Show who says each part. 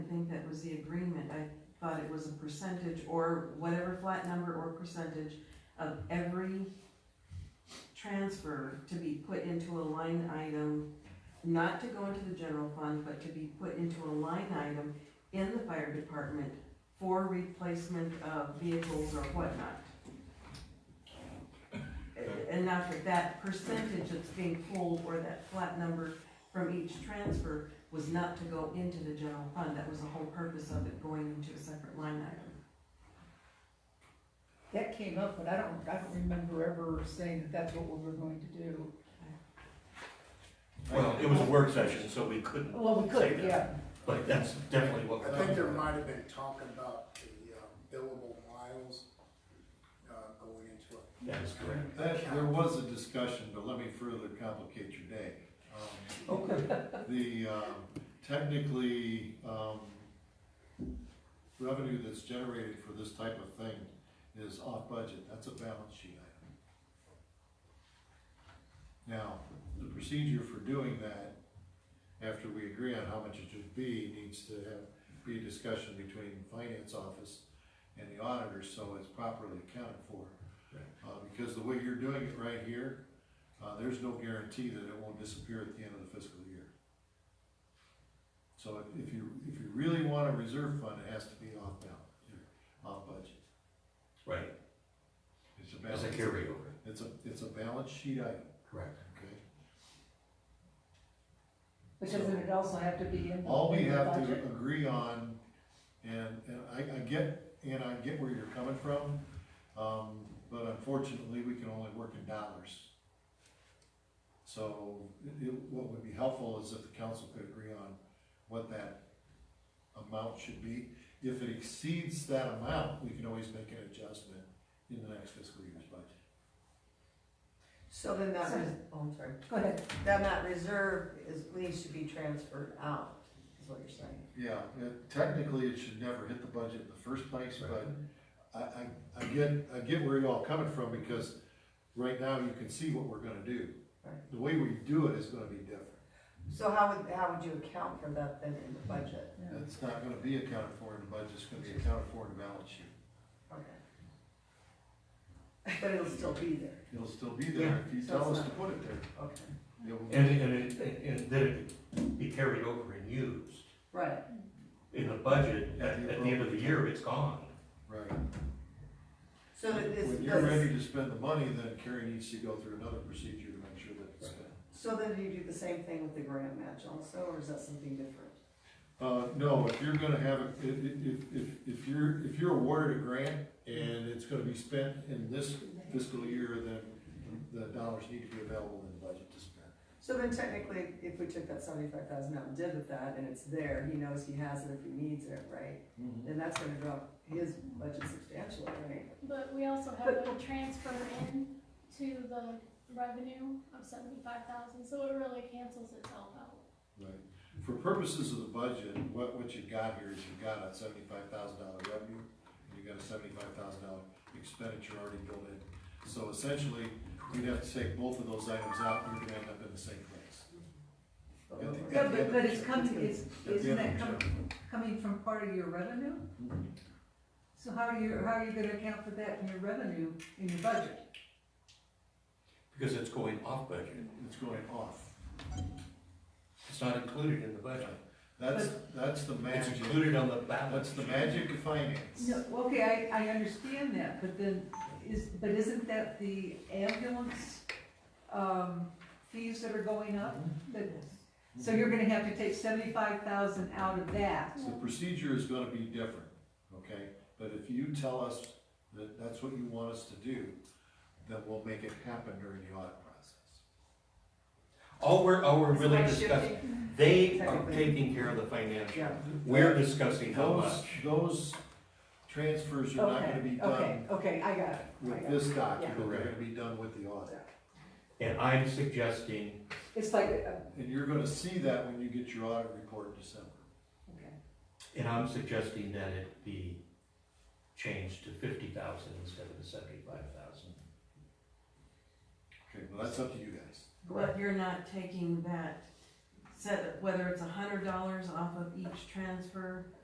Speaker 1: think that was the agreement, I thought it was a percentage or whatever flat number or percentage of every transfer to be put into a line item, not to go into the general fund, but to be put into a line item in the fire department for replacement of vehicles or whatnot. And not that that percentage that's being pulled or that flat number from each transfer was not to go into the general fund, that was the whole purpose of it going into a separate line item.
Speaker 2: That came up, but I don't, I don't remember ever saying that that's what we were going to do.
Speaker 3: Well, it was a work session, so we couldn't,
Speaker 2: Well, we
Speaker 3: Say
Speaker 2: could,
Speaker 3: that.
Speaker 2: yeah.
Speaker 3: but that's definitely what.
Speaker 4: I think there might have been talking about the um, billable miles, uh, going into it.
Speaker 3: That is correct.
Speaker 5: That, there was a discussion, but let me further complicate your day. Okay. The, um, technically, um, revenue that's generated for this type of thing is off budget, that's a balance sheet item. Now, the procedure for doing that, after we agree on how much it should be, needs to have, be a discussion between finance office and the auditor, so it's properly accounted for. Uh, because the way you're doing it right here, uh, there's no guarantee that it won't disappear at the end of the fiscal year. So if- if you, if you really want a reserve fund, it has to be off balance, off budget.
Speaker 3: Right,
Speaker 5: It's a
Speaker 3: as
Speaker 5: balance.
Speaker 3: a carryover.
Speaker 5: It's a, it's a balance sheet item,
Speaker 3: Correct.
Speaker 5: okay?
Speaker 2: But doesn't it also have to be in?
Speaker 5: All we
Speaker 2: in the
Speaker 5: have to
Speaker 2: budget?
Speaker 5: agree on, and, and I, I get, and I get where you're coming from, um, but unfortunately, we can only work in dollars. So, it, it- what would be helpful is if the council could agree on what that amount should be. If it exceeds that amount, we can always make an adjustment in the next fiscal year's budget.
Speaker 6: So then that, res- oh, I'm sorry,
Speaker 2: Go ahead.
Speaker 6: then that reserve is, needs to be transferred out, is what you're saying.
Speaker 5: Yeah, it- technically, it should never hit the budget in the first place, but I, I, I get, I get where y'all coming from, because right now, you can see what we're gonna do.
Speaker 6: Right.
Speaker 5: The way we do it is gonna be different.
Speaker 6: So how would, how would you account for that then in the budget?
Speaker 5: It's not gonna be accounted for in the budget, it's gonna be accounted for in the balance sheet.
Speaker 6: Okay. But it'll still be there,
Speaker 5: It'll still be there if you
Speaker 6: So
Speaker 5: tell
Speaker 6: it's
Speaker 5: us to
Speaker 6: not-
Speaker 5: put it there.
Speaker 6: okay.
Speaker 5: It will-
Speaker 3: And, and, it- and then it could be carried over and used.
Speaker 6: Right,
Speaker 3: In the budget, at, at the end of the year, it's gone.
Speaker 5: Right.
Speaker 6: so that this,
Speaker 5: When you're ready
Speaker 6: does-
Speaker 5: to spend the money, then Carrie needs to go through another procedure to make sure that it's spent.
Speaker 6: so then do you do the same thing with the grant match also, or is that something different?
Speaker 5: Uh, no, if you're gonna have, a- if, if, if, if you're, if you're awarded a grant and it's gonna be spent in this fiscal year, then the dollars need to be available in the budget to spend.
Speaker 6: So then technically, if we took that seventy-five thousand out and did with that, and it's there, he knows he has it if he needs it, right?
Speaker 1: Mm-hmm.
Speaker 6: Then that's gonna drop his budget substantially, right?
Speaker 7: But we also have a transfer in to the revenue of seventy-five thousand, so it really cancels itself out.
Speaker 5: Right. For purposes of the budget, what, what you've got here is you've got a seventy-five thousand dollar revenue, and you've got a seventy-five thousand dollar expenditure already built in. So essentially, you'd have to take both of those items out, and you're gonna end up in the same place. At the-
Speaker 8: Yeah,
Speaker 5: at the end
Speaker 8: but,
Speaker 5: of
Speaker 8: but
Speaker 5: the
Speaker 8: it's
Speaker 5: year.
Speaker 8: coming, it's,
Speaker 5: At the
Speaker 8: isn't
Speaker 5: end of
Speaker 8: that
Speaker 5: the
Speaker 8: coming,
Speaker 5: year.
Speaker 8: coming from part of your revenue?
Speaker 5: Mhm.
Speaker 8: So how are you, how are you gonna account for that in your revenue, in your budget?
Speaker 3: Because it's going off budget.
Speaker 5: It's going off.
Speaker 3: It's not included in the budget.
Speaker 5: That's, that's the
Speaker 3: It's
Speaker 5: magic,
Speaker 3: included on the balance.
Speaker 5: that's the magic of finance.
Speaker 8: No, okay, I, I understand that, but then, is, but isn't that the ambulance, um, fees that are going up? That- So you're gonna have to take seventy-five thousand out of that,
Speaker 5: So the procedure is gonna be different, okay? But if you tell us that that's what you want us to do, then we'll make it happen during the audit process.
Speaker 3: All we're, all we're
Speaker 6: So
Speaker 3: really
Speaker 6: by
Speaker 3: discussing,
Speaker 6: shifting-
Speaker 3: they are
Speaker 6: Technically.
Speaker 3: taking care of the financial.
Speaker 6: Yeah.
Speaker 3: We're discussing how
Speaker 5: Those,
Speaker 3: much.
Speaker 5: those transfers are not
Speaker 8: okay,
Speaker 5: gonna be
Speaker 8: okay,
Speaker 5: done
Speaker 8: okay, I got it, I
Speaker 5: with
Speaker 8: got it.
Speaker 5: this document, they're
Speaker 3: Correct.
Speaker 5: gonna be done with the audit.
Speaker 3: And I'm suggesting
Speaker 8: It's like, uh,
Speaker 5: And you're gonna see that when you get your audit report in December.
Speaker 8: okay,
Speaker 3: And I'm suggesting that it be changed to fifty thousand instead of the seventy-five thousand.
Speaker 5: Okay, well, that's up to you guys.
Speaker 1: But you're not taking that, set, whether it's a hundred dollars off of each transfer